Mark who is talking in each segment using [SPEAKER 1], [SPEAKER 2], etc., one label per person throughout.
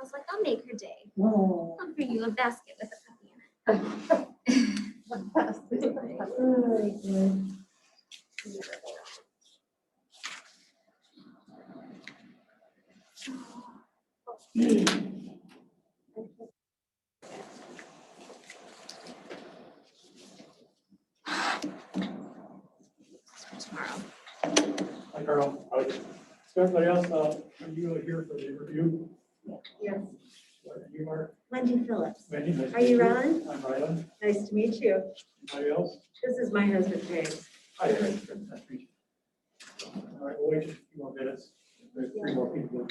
[SPEAKER 1] was like, I'll make her day.
[SPEAKER 2] Oh.
[SPEAKER 1] I'll bring you a basket with a puppy in it tomorrow.
[SPEAKER 3] Hi, Carl. Is everybody else, uh, are you here for the review?
[SPEAKER 4] Yes,
[SPEAKER 3] What, You are,
[SPEAKER 4] Wendy Phillips.
[SPEAKER 3] Mandy? nice to
[SPEAKER 4] Are you
[SPEAKER 3] meet
[SPEAKER 4] Rylan?
[SPEAKER 3] I'm Ryland.
[SPEAKER 4] Nice to meet you.
[SPEAKER 3] Anybody else?
[SPEAKER 4] This is my husband, James.
[SPEAKER 3] Hi, Eric. Nice to meet you. All right, we'll wait just a few more minutes. There's three more people.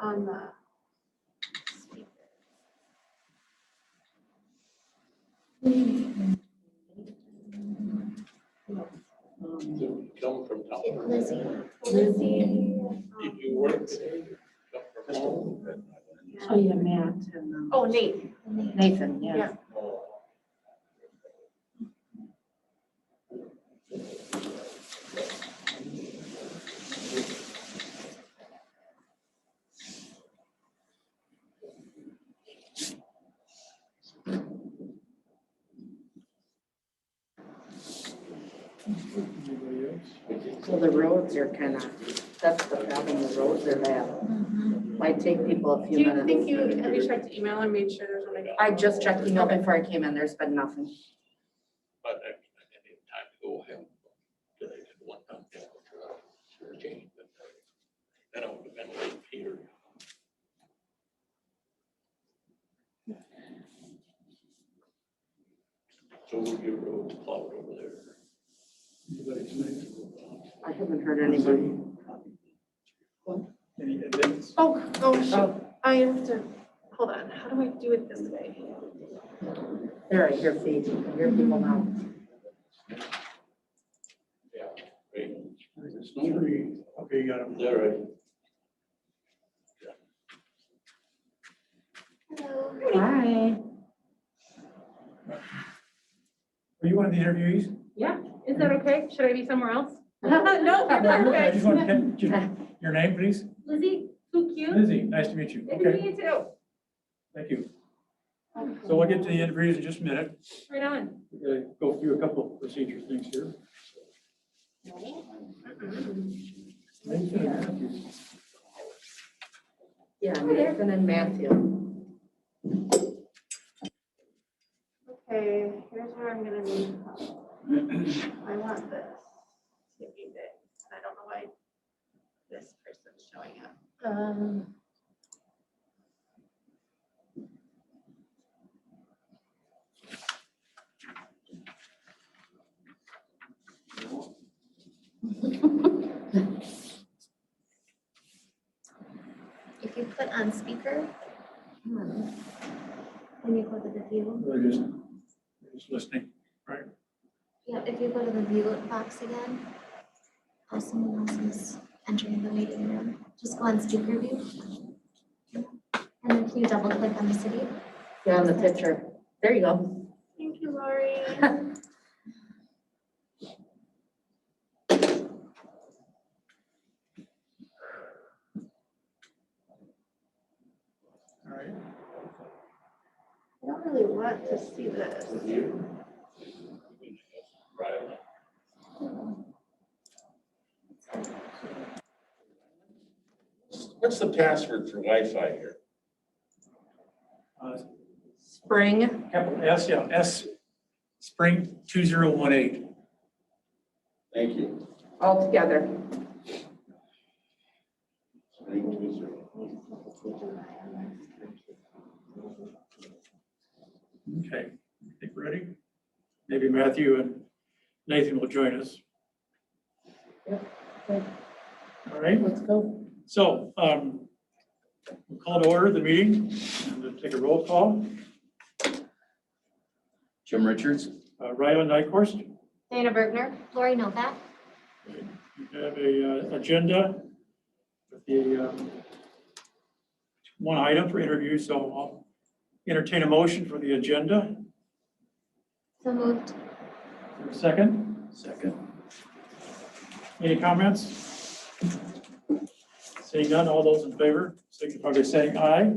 [SPEAKER 4] On the.
[SPEAKER 5] Come from town.
[SPEAKER 1] Lizzie.
[SPEAKER 5] Did you work? Come from home?
[SPEAKER 2] Oh, yeah, Matt.
[SPEAKER 4] Oh, Nate.
[SPEAKER 2] Nathan, yeah.
[SPEAKER 3] Anybody else?
[SPEAKER 2] So the roads are kind of, that's the problem, the roads are bad.
[SPEAKER 4] Mm-hmm.
[SPEAKER 2] Might take people a
[SPEAKER 4] Do
[SPEAKER 2] few
[SPEAKER 4] you think
[SPEAKER 2] minutes.
[SPEAKER 4] you, have you checked email and made sure there's nobody?
[SPEAKER 2] I just checked email before I came in, there's been nothing.
[SPEAKER 5] But I mean, I didn't have time to go home. Did I just one time? yeah, sure, change, but Then I would have been late, Peter. So would your road plowed over there?
[SPEAKER 3] Anybody's name?
[SPEAKER 2] I haven't heard anybody.
[SPEAKER 3] Any events?
[SPEAKER 4] Oh, oh, shoot. I have to, hold on. How do I do it this way?
[SPEAKER 2] There, I hear feet, I hear people now.
[SPEAKER 5] Yeah. Right,
[SPEAKER 3] There's three. Okay, you got them.
[SPEAKER 5] there, right?
[SPEAKER 1] Hello.
[SPEAKER 2] Hi.
[SPEAKER 3] Are you one of the interviewees?
[SPEAKER 6] Is that okay? Should I be somewhere else?
[SPEAKER 4] No, you're
[SPEAKER 3] I
[SPEAKER 4] perfect.
[SPEAKER 3] just want to get your- Your name, please?
[SPEAKER 6] Lizzie, who
[SPEAKER 4] Hmm?
[SPEAKER 6] cute?
[SPEAKER 3] Lizzie, nice to meet you.
[SPEAKER 6] Good to
[SPEAKER 3] Okay,
[SPEAKER 6] meet you too.
[SPEAKER 3] thank you. So we'll get to the interviews in just a minute.
[SPEAKER 6] Right on.
[SPEAKER 3] We're gonna go through a couple of procedure things here.
[SPEAKER 2] Yeah, Nathan and Matthew.
[SPEAKER 4] Okay, here's where I'm gonna need. help. I want this to be big. I don't know why this person's showing up. Um.
[SPEAKER 1] If you put on speaker.
[SPEAKER 4] Hmm.
[SPEAKER 1] When you go to the view,
[SPEAKER 3] They're just, they're just listening.
[SPEAKER 1] yeah, if you go to the view box again. Or someone else is entering the waiting room, just go on speaker view. And then can you double click on the city?
[SPEAKER 2] Yeah, on the picture. There you go.
[SPEAKER 4] Thank you, Lori.
[SPEAKER 3] All right.
[SPEAKER 4] I don't really want to see this.
[SPEAKER 5] Right. What's the password for Wi-Fi here?
[SPEAKER 3] Uh,
[SPEAKER 2] Spring,
[SPEAKER 3] Capital S, yeah, S, spring two zero one eight.
[SPEAKER 5] Thank you.
[SPEAKER 2] all together.
[SPEAKER 3] Okay, I think we're ready. Maybe Matthew and Nathan will join us.
[SPEAKER 2] Yep.
[SPEAKER 3] All right.
[SPEAKER 2] Let's go.
[SPEAKER 3] So, um, we'll call to order the meeting and then take a roll call.
[SPEAKER 7] Jim Richards?
[SPEAKER 3] Uh, Ryland Nyquist,
[SPEAKER 6] Dana Bergner.
[SPEAKER 1] Lori Novak,
[SPEAKER 3] you have a uh, agenda with the, um, one item for interview, so I'll entertain a motion for the agenda.
[SPEAKER 1] so moved.
[SPEAKER 3] Is there a Second,
[SPEAKER 7] Second.
[SPEAKER 3] any comments? Seeing none, all those in favor, signify by saying aye.